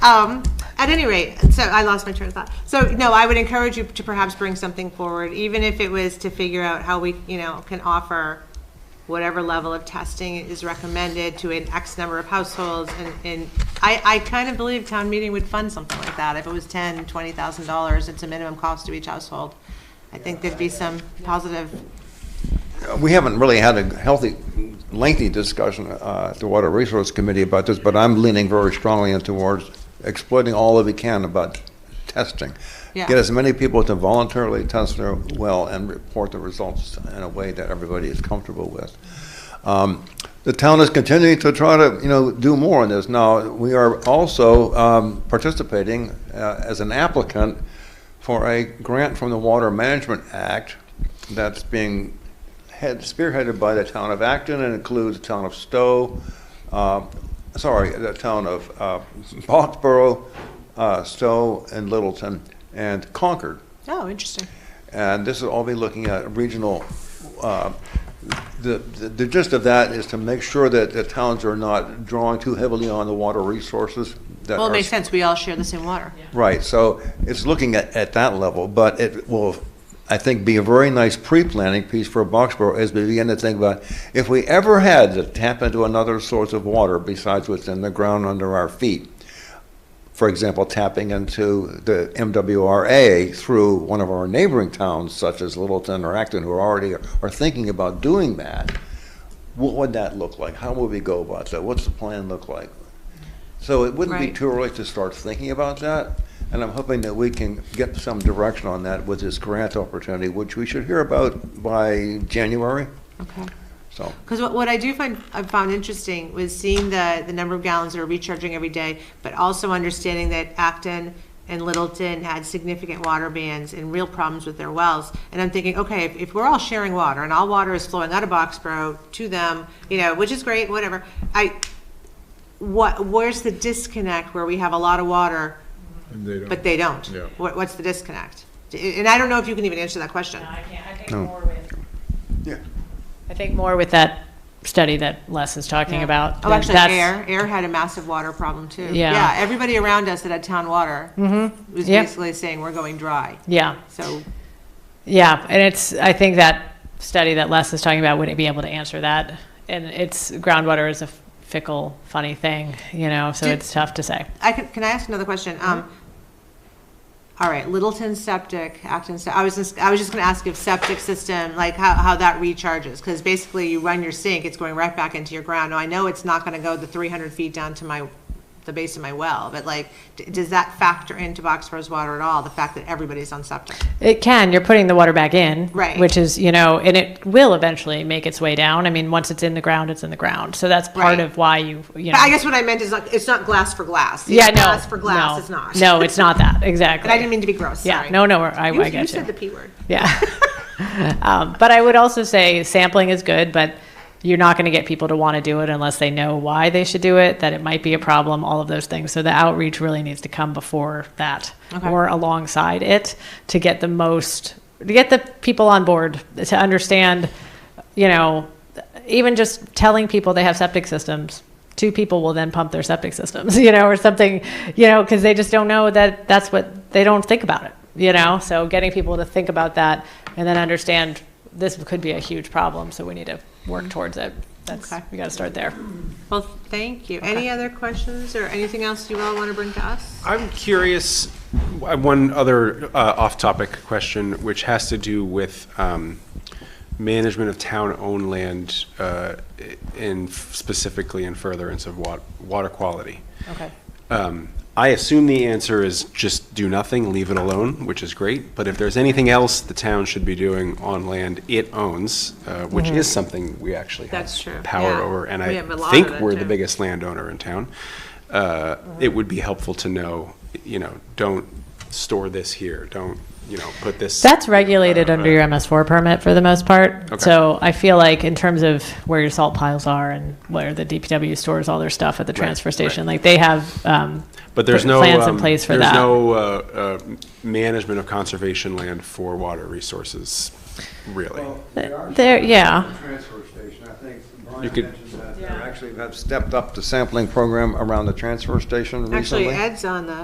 Um, at any rate, so I lost my train of thought. So, no, I would encourage you to perhaps bring something forward, even if it was to figure out how we, you know, can offer whatever level of testing is recommended to an X number of households. And, and I, I kind of believe town meeting would fund something like that. If it was ten, twenty thousand dollars, it's a minimum cost to each household. I think there'd be some positive, We haven't really had a healthy, lengthy discussion uh, at the Water Resource Committee about this, but I'm leaning very strongly in towards exploiting all that we can about testing. Yeah. Get as many people to voluntarily test their well and report the results in a way that everybody is comfortable with. Um, The town is continuing to try to, you know, do more on this. Now, we are also um, participating uh, as an applicant for a grant from the Water Management Act that's being head, spearheaded by the town of Acton and includes the town of Stowe, uh, sorry, the town of uh, Foxborough, uh, Stowe, and Littleton, and Concord. oh, interesting. And this is all be looking at regional, uh, the, the the gist of that is to make sure that the towns are not drawing too heavily on the water resources that Well, it are makes sense. We all share the same water. Right, so it's looking at, at that level, but it will, I think, be a very nice pre-planning piece for Boxborough as we begin to think about, if we ever had to tap into another source of water besides what's in the ground under our feet, for example, tapping into the MWRA through one of our neighboring towns such as Littleton or Acton, who are already are thinking about doing that, what would that look like? How would we go about that? What's the plan look like? So it wouldn't be Right. too early to start thinking about that, and I'm hoping that we can get some direction on that with this grant opportunity, which we should hear about by January, Okay. so. Because what, what I do find, I found interesting was seeing the, the number of gallons that are recharging every day, but also understanding that Acton and Littleton had significant water bans and real problems with their wells. And I'm thinking, okay, if, if we're all sharing water and all water is flowing out of Boxborough to them, you know, which is great, whatever, I, what, where's the disconnect where we have a lot of water, And they don't. but they don't? Yeah. What, what's the disconnect? And I don't know if you can even answer that question. No, I can't, I think No. more with, Yeah. I think more with that study that Les is talking Yeah. about. Oh, that- actually, that's- air, air had a massive water problem too. Yeah. Mm-hmm. everybody around us that had town water was Yeah. basically saying we're going dry. Yeah, So, yeah, and it's, I think that study that Les is talking about wouldn't be able to answer that. And it's, groundwater is a fickle, funny thing, you know, so Did- it's tough to say. I can, can I ask another question? Um, Mm-hmm. all right, Littleton septic, Acton. se- I was just, I was just going to ask if septic system, like how, how that recharges, because basically you run your sink, it's going right back into your ground. Now I know it's not going to go the 300 feet down to my, the base of my well, but like, d- does that factor into Boxborough's water at all? The fact that everybody's on septic. It can, you're putting the water back in. Right. Which is, you know, and it will eventually make its way down. I mean, once it's in the ground, it's in the ground. So that's Right. part of why you, you know. But I guess what I meant is like, it's not glass for glass. You Yeah, know, no. Glass for glass, no. it's not. No, it's not that, exactly. But I didn't mean to be gross, Yeah, sorry. no, no, I, I You, get you. you said the P word. Yeah. um, but I would also say sampling is good, but you're not going to get people to want to do it unless they know why they should do it, that it might be a problem, all of those things. So the outreach really needs to come before that Okay. or alongside it to get the most, to get the people on board to understand, you know, even just telling people they have septic systems. Two people will then pump their septic systems, you know, or something, you know, because they just don't know that that's what they don't think about it, you know. So getting people to think about that and then understand this could be a huge problem, so we need to work towards it. That's Okay. we got to start there. Well, thank you. Any other questions or anything else you all want to bring to us? I'm curious, uh, one other uh, off-topic question, which has to do with um, management of town-owned land uh, i- in specifically in furtherance of wa- water quality. Okay. Um, I assume the answer is just do nothing, leave it alone, which is great. But if there's anything else the town should be doing on land it owns, uh, which is something we actually have Mm-hmm. That's true, power yeah. over, and We have a lot I of think it, we're too. the biggest landowner in town, uh, it would be helpful to know, you know, don't store this here, don't, you know, put this. That's regulated uh, under your MS4 permit for the most part. Okay. So I feel like in terms of where your salt piles are and where the DPW stores all their stuff at the transfer right. station, like they have. Um, But there's no. plans in um, place for There's that. no uh, uh, management of conservation land for water resources, really. There, yeah. transfer station, I think Brian You could- mentioned that They actually have stepped up the sampling program around the transfer station recently. Actually, Ed's on the